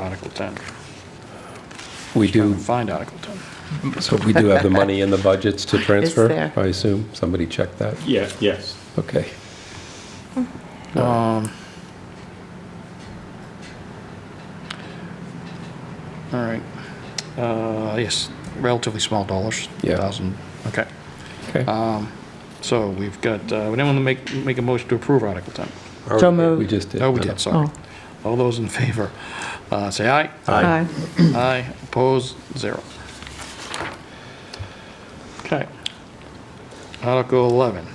Article 10. We do, Find Article 10. so we do have the money in the budgets to transfer, there. I assume? Somebody check that? Yeah, yes. Okay. All right. Uh, Yes, relatively small dollars. Yeah. 1,000, okay. Okay. Uh, So we've got, uh, would anyone make, make a motion to approve Article 10? Already, moved. We just did. Oh, we did, sorry. Oh. All those in favor, uh, say aye. Aye. Aye, opposed, zero. Okay. Article 11.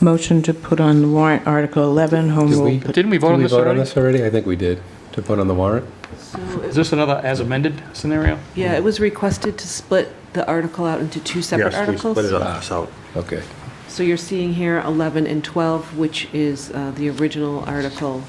Motion to put on the warrant Article 11, Home Did Rule. we- pet- Didn't we vote Did on this We vote on already? this already? I think we did, to put on the warrant. Is this another as amended scenario? Yeah, it was requested to split the article out into two separate Yes, we articles. split it up, so. Okay. So you're seeing here 11 and 12, which is uh, the original article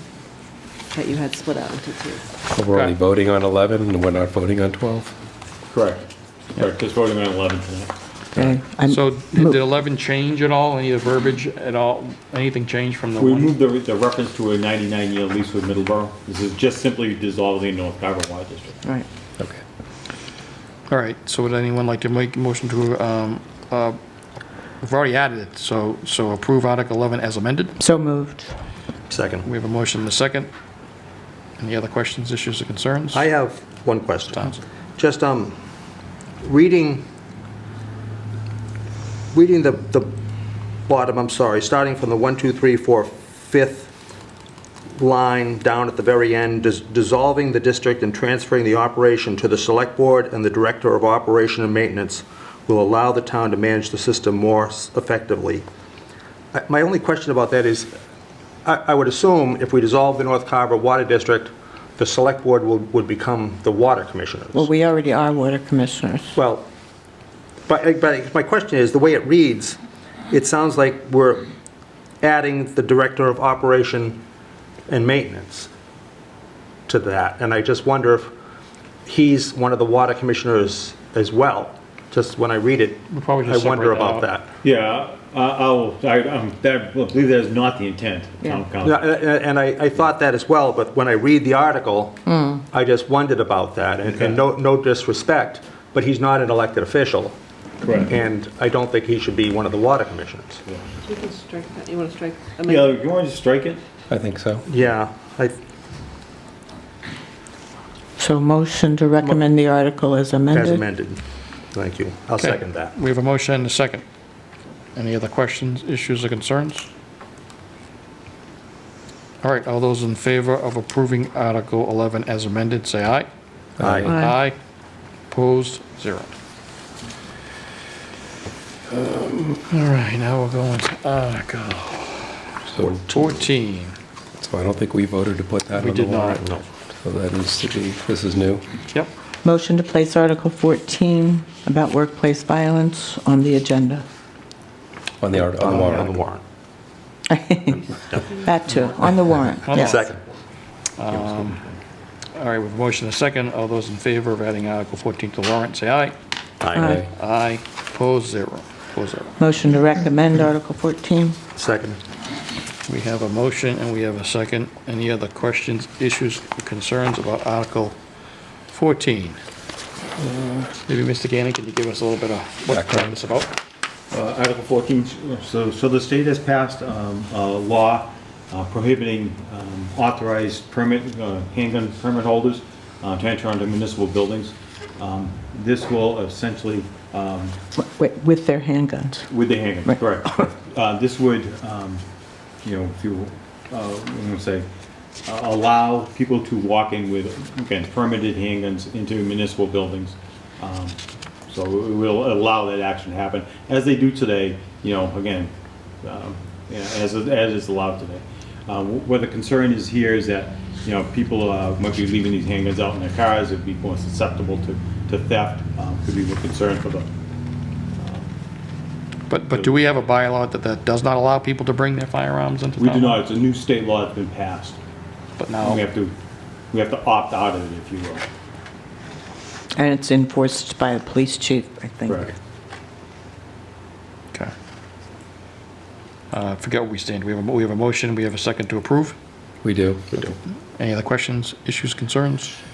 that you had split out into two. So We're only Okay. voting on 11, and we're not voting on 12? Correct. Correct, just voting on 11 tonight. Okay, I'm- So did 11 change at all, any of the verbiage at all, anything change from the We one? moved the, the reference to a 99-year lease with Middleborough. This is just simply dissolving North Carver Water District. Right. Okay. All right, so would anyone like to make a motion to, um, uh, we've already added it, so, so approve Article 11 as amended? So moved. Second. We have a motion and a second. Any other questions, issues, or concerns? I have one question. Towns. Just, um, reading, reading the, the bottom, I'm sorry, starting from the one, two, three, four, fifth line down at the very end, dis- dissolving the district and transferring the operation to the select board and the director of operation and maintenance will allow the town to manage the system more s- effectively. I- My only question about that is, I I would assume if we dissolve the North Carver Water District, the Select Board will- would become the Water Commissioners. Well, we already are water commissioners. Well, but but my question is, the way it reads, it sounds like we're adding the Director of Operation and Maintenance to that, and I just wonder if he's one of the Water Commissioners as well. Just when I read it, We'll probably I just wonder separate that out. about that. Yeah, I- I'll, I um, that- I believe that is not the intent of Yeah. town Yeah, council. a- a- and I, I thought that as well, but when I read the article, I just wondered about that, and and no, no disrespect, but he's not an elected official, Correct. and I don't think he should be one of the water commissioners. You can strike that, you want to strike? Yeah, you want to strike it? I think so. Yeah, I, So motion to recommend the article as amended. as amended. Thank you. I'll Okay. second that. We have a motion and a second. Any other questions, issues, or concerns? All right, all those in favor of approving Article 11 as amended, say aye. Uh, Aye. Aye. Opposed, zero. Um, All right, now we're going to Article So 14. so I don't think we voted to put that We on the did not. warrant. So that needs to be, this is new. Yep, Motion to place Article 14 about workplace violence on the agenda. On the art- on the On the warrant. warrant. That too, on the warrant, On the yes. Second. all right, we have a motion and a second. All those in favor of adding Article 14 to the warrant, say aye. Aye. Okay. Aye, opposed, zero. Opposed, zero. Motion to recommend Article 14. Second. We have a motion and we have a second. Any other questions, issues, concerns about Article 14? Maybe Mr. Gannon, can you give us a little bit of what Background. it's about? Uh, Article 14, so, so the state has passed um, a law uh, prohibiting um, authorized permit, uh, handgun permit holders uh, to enter onto municipal buildings. Um, This will essentially, um, Wi- With their handguns. with the handgun, Right. correct. Uh, This would, um, you know, if you, uh, I'm gonna say, uh, allow people to walk in with, again, permitted handguns into municipal buildings. Um, So it will allow that action to happen, as they do today, you know, again, um, yeah, as, as is allowed today. Uh, wh- Where the concern is here is that, you know, people uh, might be leaving these handguns out in their cars, it'd be more susceptible to, to theft, um, could be a concern for the, But, but do we have a bylaw that, that does not allow people to bring their firearms into town? We do not, it's a new state law that's been passed. But We now, have to, we have to opt out of it, if you will. And it's enforced by the police chief, I think. okay. Uh, Forget where we stand. We have, a we have a motion, we have a second to approve. We do. Any other questions, issues, concerns?